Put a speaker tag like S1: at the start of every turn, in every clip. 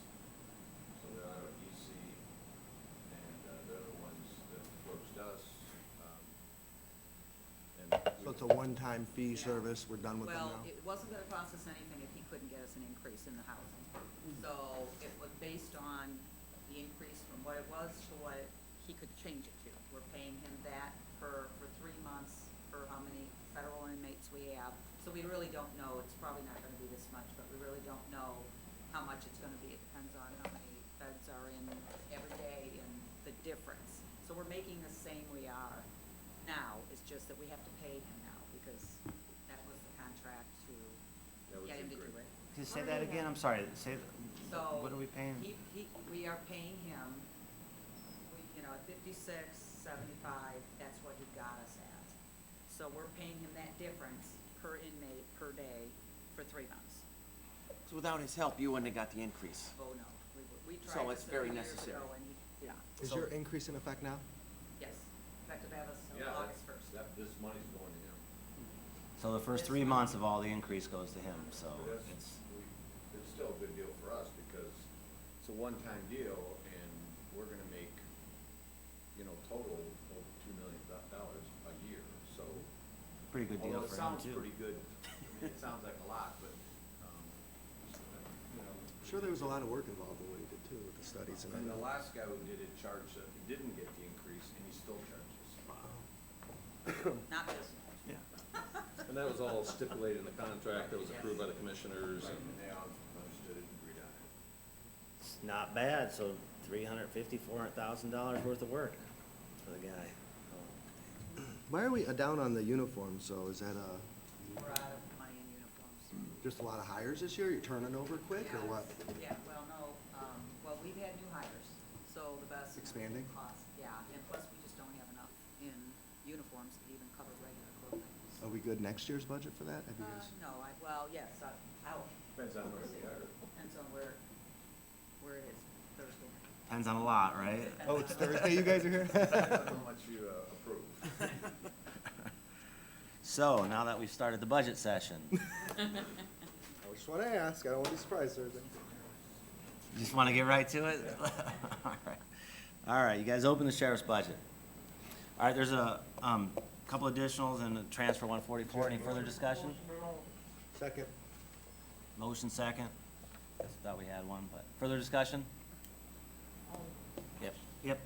S1: uh, um,
S2: it's a one-time fee service, we're done with them
S3: Well,
S2: now?
S3: it wasn't gonna cost us anything if he couldn't get us an increase in the housing. So it was based on the increase from what it was to what he could change it to. We're paying him that for, for three months, for how many federal inmates we have. So we really don't know, it's probably not gonna be this much, but we really don't know how much it's gonna be. It depends on how many feds are in every day and the difference. So we're making the same we are now, it's just that we have to pay him now because that was the contract to
S1: That was
S3: get him to
S1: the
S3: do
S1: agreement.
S3: it.
S4: Can you say that again? I'm sorry, say,
S3: So.
S4: what are we paying?
S3: He, he, we are paying him, we, you know, at fifty-six, seventy-five, that's what he got us at. So we're paying him that difference per inmate, per day, for three months.
S5: So without his help, you wouldn't have got the increase.
S3: Oh, no, we, we
S5: So
S3: tried
S5: it's
S3: this a
S5: very
S3: few years
S5: necessary.
S3: ago and he, yeah,
S2: Is your increase in effect now?
S3: yes, effective as
S1: Yeah,
S3: of
S1: that-
S3: August first.
S1: That, this money's going to him.
S4: So the first three months of all the increase goes to him, so
S1: But that's,
S4: it's,
S1: we, it's still a good deal for us because it's a one-time deal and we're gonna make, you know, total over two million do- dollars a year, so.
S4: pretty good deal
S1: although
S4: for
S1: It sounds
S4: him too.
S1: pretty good. I mean, it sounds like a lot, but, um, you know.
S2: I'm Sure there was a lot of work involved in what you did too, with the studies and
S1: And the
S2: all that.
S1: last guy who did it charged, that he didn't get the increase and he still charges.
S3: Not this one.
S4: Yeah.
S6: And that was all stipulated in the contract that was approved by the commissioners
S1: Right, And
S6: and
S1: they all understood it and agreed on it.
S4: It's not bad, so three hundred fifty, four hundred thousand dollars worth of work for the guy.
S2: Why are we uh, down on the uniforms, so is that uh
S3: We're out of money in uniforms.
S2: just a lot of hires this year, you're turning over quick, or what?
S3: Yeah, well, no, um, well, we've had new hires, so the best.
S2: Expanding?
S3: Cost, yeah, and plus we just don't have enough in uniforms to even cover regular clothing.
S2: Are we good next year's budget for that? Have you
S3: Uh,
S2: guys-
S3: no, I, well, yes, I, I'll,
S1: Depends on where they are.
S3: depends on where, where it is Thursday.
S4: Depends on a lot, right?
S2: Oh, it's Thursday, you guys are here?
S1: Depends on how much you uh, approve.
S4: So now that we've started the budget session,
S2: I just wanna ask, I don't wanna be surprised, Thursday.
S4: just want to get right to it? All right. All right, you guys open the sheriff's budget. All right, there's a, um, couple additionals and a transfer one forty-four. Any further discussion?
S2: Second.
S4: Motion second. I Thought we had one, but further discussion? Yep, yep.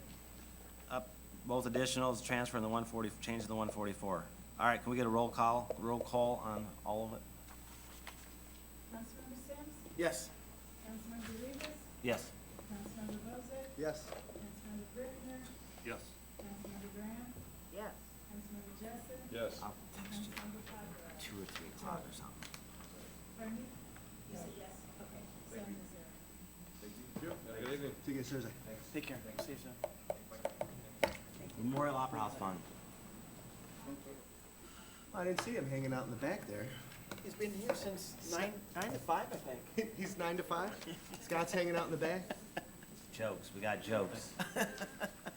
S4: Up, both additionals, transfer in the one forty, change to the one forty-four. All right, can we get a roll call, roll call on all of it?
S7: Councilmember Sims,
S5: Yes.
S7: Councilmember Rivas,
S4: Yes.
S7: Councilmember Bozak,
S2: Yes.
S7: Councilmember Brickner,
S6: Yes.
S7: Councilmember Graham,
S3: Yes.
S7: Councilmember Jessup,
S6: Yes.
S4: I'll text you
S7: Councilmember Papera.
S4: two or three o'clock or something.
S7: Pardon me? You said yes, okay, seven to zero.
S6: Have a good evening.
S2: See you guys Thursday.
S5: Take care. See you soon.
S4: Memorial Opera House Fund.
S2: Oh, I didn't see him hanging out in the back there.
S5: He's been here since nine, nine to five, I think.
S2: He's nine to five? Scott's hanging out in the back?
S4: Jokes, we got jokes.
S2: Takes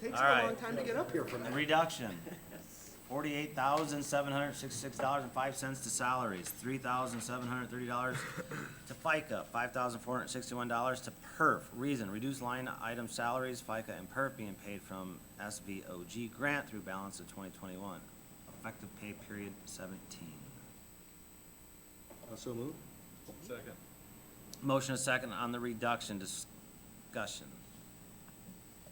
S4: All
S2: him a
S4: right.
S2: long time to get up here from there.
S4: Reduction, forty-eight thousand, seven hundred sixty-six dollars and five cents to salaries, three thousand, seven hundred thirty dollars to FICA, five thousand, four hundred sixty-one dollars to PERF. Reason, reduced line item salaries, FICA and PERF being paid from SVOG grant through balance of twenty twenty-one. Effective pay period seventeen.
S2: Oh, So move.
S6: Second.
S4: Motion a second on the reduction discussion.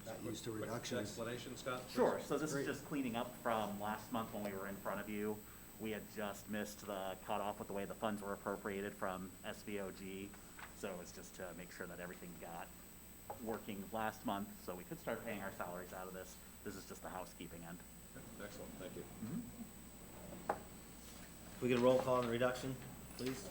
S2: Not used to
S6: Quick
S2: reductions.
S6: Explanation, Scott? please?
S8: Sure, so this
S2: Great.
S8: is just cleaning up from last month when we were in front of you. We had just missed the cutoff with the way the funds were appropriated from SVOG. So it's just to make sure that everything got working last month, so we could start paying our salaries out of this. This is just the housekeeping end.
S6: Excellent, thank you.
S4: Can we get a roll call on the reduction, please?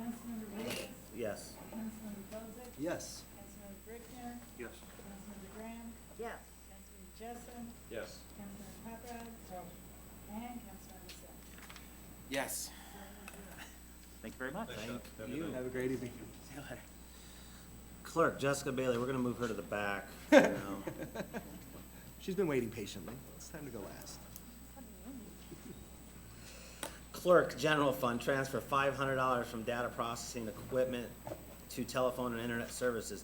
S7: Councilmember Rivas,
S4: Yes.
S7: Councilmember Bozak,
S2: Yes.
S7: Councilmember Brickner,
S6: Yes.
S7: Councilmember Graham,
S3: Yes.
S7: Councilmember Jessup,
S6: Yes.
S7: Councilmember Papera, and Councilmember Sims.
S5: Yes.
S8: Thank you very much.
S6: Thanks, Scott. Have a good
S4: you.
S6: night.
S2: Have a great evening.
S5: See you later.
S4: Clerk Jessica Bailey, we're gonna move her to the back. you know.
S2: She's been waiting patiently. It's time to go last.
S4: Clerk General Fund, transfer five hundred dollars from data processing equipment to telephone and internet services